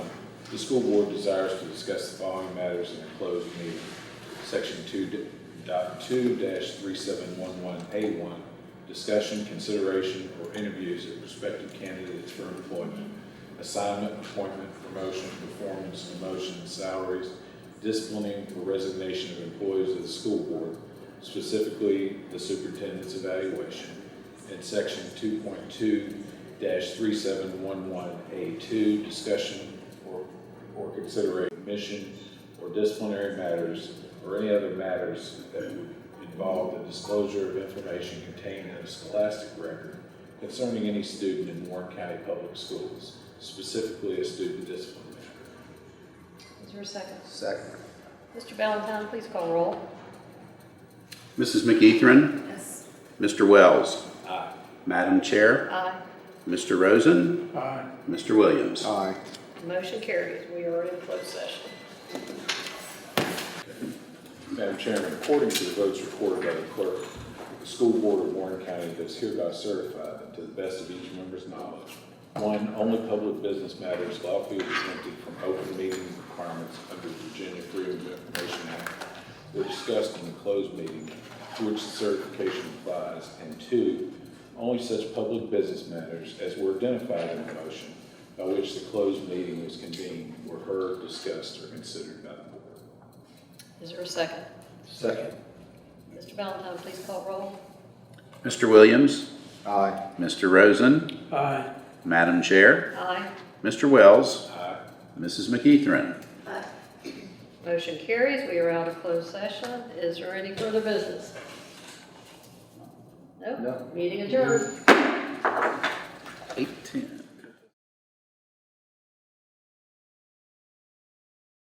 The school board desires to discuss the following matters in a closed meeting. Section two d- dot two dash three seven one one A one, discussion, consideration, or interviews of prospective candidates for employment, assignment, appointment, promotion, performance, demotion, salaries, disciplining, or resignation of employees of the school board, specifically the superintendent's evaluation. And section two point two three seven one one A two, discussion or, or consideration, mission, or disciplinary matters, or any other matters that would involve the disclosure of information contained in a scholastic record concerning any student in Warren County Public Schools, specifically a student discipline matter. Is there a second? Second. Mr. Valentine, please call roll. Mrs. McEthan? Yes. Mr. Wells? Aye. Madam Chair? Aye. Mr. Rosen? Mr. Williams? Aye. Motion carries. We are in closed session. Madam Chairman, according to the votes recorded by the clerk, the school board of Warren County does hereby certify that to the best of each member's knowledge, one, only public business matters lawfully exempted from open meeting requirements under the Virginia Freedom of Information Act were discussed in the closed meeting to which the certification applies, and two, only such public business matters as were identified in the motion by which the closed meeting was convened were heard, discussed, or considered by the board. Is there a second? Second. Mr. Valentine, please call roll. Mr. Williams? Aye. Mr. Rosen? Aye. Madam Chair? Aye. Mr. Wells? Aye. Mrs. McEthan? Motion carries. We are out of closed session. Is there any further business? Nope. No. Meeting adjourned.